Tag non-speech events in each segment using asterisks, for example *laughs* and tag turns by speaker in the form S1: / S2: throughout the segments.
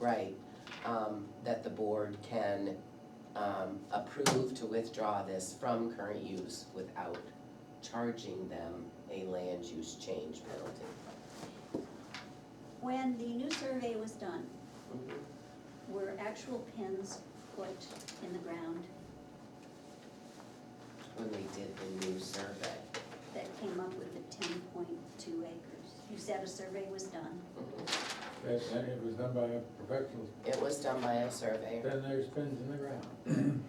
S1: right, um, that the board can, um, approve to withdraw this from current use without charging them a land use change penalty.
S2: When the new survey was done, were actual pins put in the ground
S1: When they did the new survey.
S2: that came up with the ten point two acres? You said a survey was done.
S3: That, and it was done by a professional,
S1: It was done by a surveyor,
S3: then there's pins in the ground.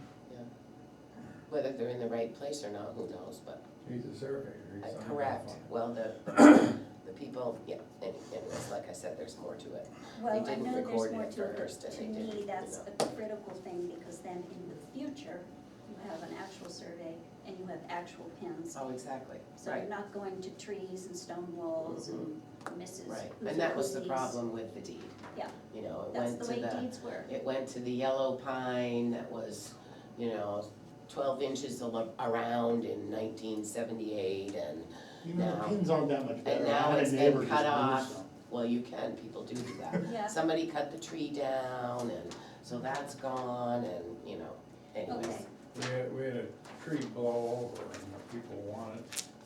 S1: whether they're in the right place or not, who knows, but
S3: He's a surveyor, he
S1: Uh,
S3: signed off
S1: Correct,
S3: on it.
S1: well, the, the *coughs* people, yeah, and anyways, like I said, there's more to it.
S2: Well, I
S1: didn't
S2: know
S1: record
S2: there's more
S1: it
S2: to it,
S1: first and
S2: but to
S1: they didn't,
S2: me,
S1: you
S2: that's
S1: know.
S2: a critical thing, because then in the future, you have an actual survey and you have actual pins.
S1: Oh, exactly,
S2: So you're
S1: right, Mm-hmm.
S2: not going to trees and stone walls and misses.
S1: right,
S2: who's
S1: and that was the
S2: who's.
S1: problem with the deed.
S2: Yeah.
S1: You know, it
S2: That's
S1: went
S2: the
S1: to
S2: way
S1: the,
S2: deeds were.
S1: it went to the yellow pine that was, you know, twelve inches al- around in nineteen seventy-eight and,
S4: You know, the
S1: Now-
S4: pins aren't that much better.
S1: and now
S4: I had a
S1: it's
S4: neighbor
S1: been
S4: just
S1: cut
S4: move
S1: off.
S4: some.
S1: Well, you can, people do do that.
S2: Yeah.
S1: Somebody cut the tree down and, so that's gone and, you know, anyways.
S2: Okay.
S3: We had, we had a tree blow over and the people wanted,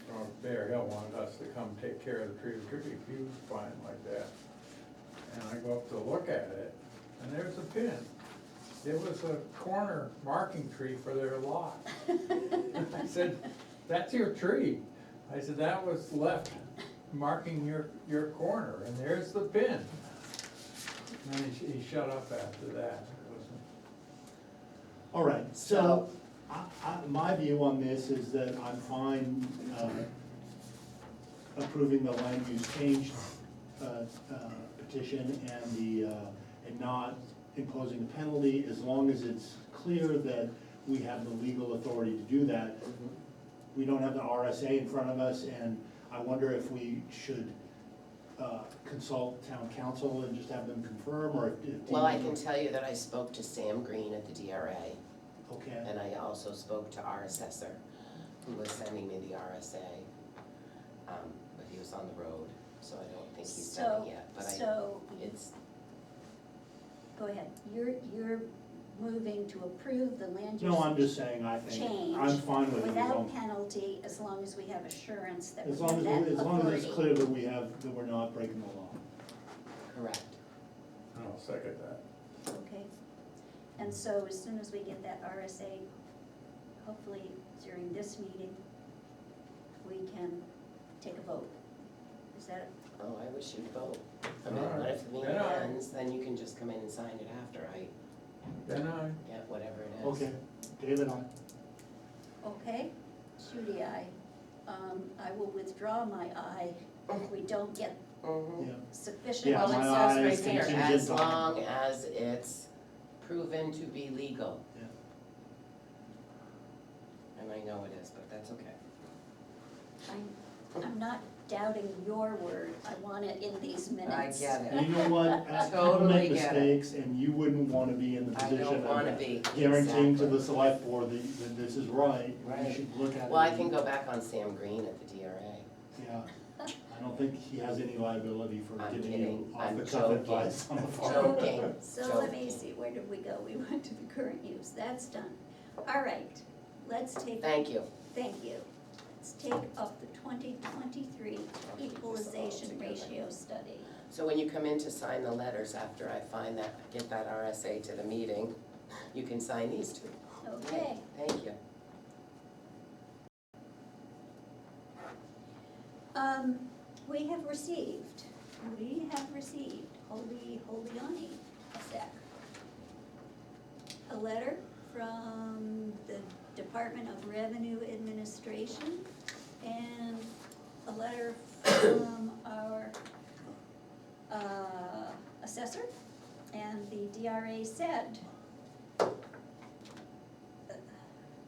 S3: from Bear Hill wanted us to come take care of the tree, it could be a huge vine like that. And I go up to look at it, and there's a pin. It was a corner marking tree for their lot. I said, that's your tree. I said, that was left marking your, your corner, and there's the pin. And then he, he shut up after that. It was-
S4: All right,
S1: So-
S4: so, I, I, my view on this is that I'm fine, uh, approving the land use change, uh, uh, petition and the, uh, and not imposing a penalty, as long as it's clear that we have the legal authority to do that. We don't have the RSA in front of us, and I wonder if we should, uh, consult town council and just have them confirm, or if. if
S1: Well, I
S4: Dean-
S1: can tell you that I spoke to Sam Green at the DRA,
S4: Okay.
S1: and I also spoke to our assessor, who was sending me the RSA. Um, but he was on the road, so I don't think he's done
S2: So,
S1: it yet, but I,
S2: so,
S1: it's,
S2: go ahead, you're, you're moving to approve the land use
S4: No, I'm just saying, I think, I'm
S2: Change
S4: fine with it, as
S2: without
S4: long,
S2: penalty, as long as we have assurance that we
S4: as long
S2: have
S4: as,
S2: that
S4: we- as long as it's
S2: authority.
S4: clear that we have, that we're not breaking the law.
S1: correct.
S3: And I'll second that.
S2: Okay, and so as soon as we get that RSA, hopefully during this meeting, we can take a vote. Is that,
S1: Oh, I wish you'd vote. I mean,
S3: Alright.
S1: what if the meeting
S3: Yeah.
S1: ends, then you can just come in and sign it after, I,
S3: Then I,
S1: yeah, whatever it is.
S4: Okay, David, I,
S2: okay? Judy, I, um, I will withdraw my aye if we don't get
S1: Mhm.
S4: yeah,
S2: sufficient.
S4: Yeah,
S1: Well,
S4: my
S1: it says
S4: eyes
S1: right here,
S4: contingent
S1: as
S4: on-
S1: long as it's proven to be legal.
S4: Yeah.
S1: And I know it is, but that's okay.
S2: I'm, I'm not doubting your word, I want it in these
S1: I
S2: minutes.
S1: get
S4: and
S1: it.
S4: you
S1: *laughs*
S4: know what, as people
S1: Totally
S4: make
S1: get it.
S4: mistakes, and you wouldn't wanna be in the
S1: I
S4: position
S1: don't wanna
S4: of
S1: be.
S4: guaranteeing to the
S1: Exactly.
S4: select board that, that this is right,
S1: Right.
S4: you should look at it.
S1: Well, I
S4: and-
S1: can go back on Sam Green at the DRA.
S4: Yeah, I don't think he has any liability for
S1: I'm
S4: giving
S1: kidding.
S4: you off
S1: I'm
S4: the cuff
S1: *laughs* joking.
S4: advice on the farm.
S1: Joking,
S2: So let me
S1: joking.
S2: see, where did we go? We went to the current use, that's done. All right, let's take,
S1: Thank you.
S2: thank you. Let's take up the twenty twenty-three equalization ratio study.
S1: So when you come in to sign the letters after I find that, get that RSA to the meeting, you can sign these two.
S2: Okay,
S1: Thank you.
S2: um, we have received, we have received, holy, holy on a sec. A letter from the Department of Revenue Administration and a letter from our uh, assessor. And the DRA said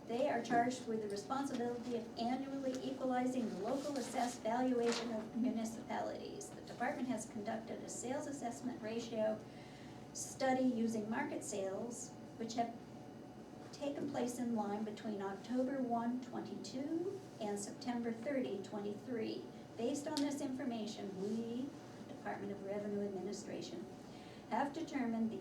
S2: They are charged with the responsibility of annually equalizing the local assessed valuation of municipalities. The department has conducted a sales assessment ratio study using market sales, which have taken place in line between October 1, 22 and September 30, 23. Based on this information, we, Department of Revenue Administration, have determined the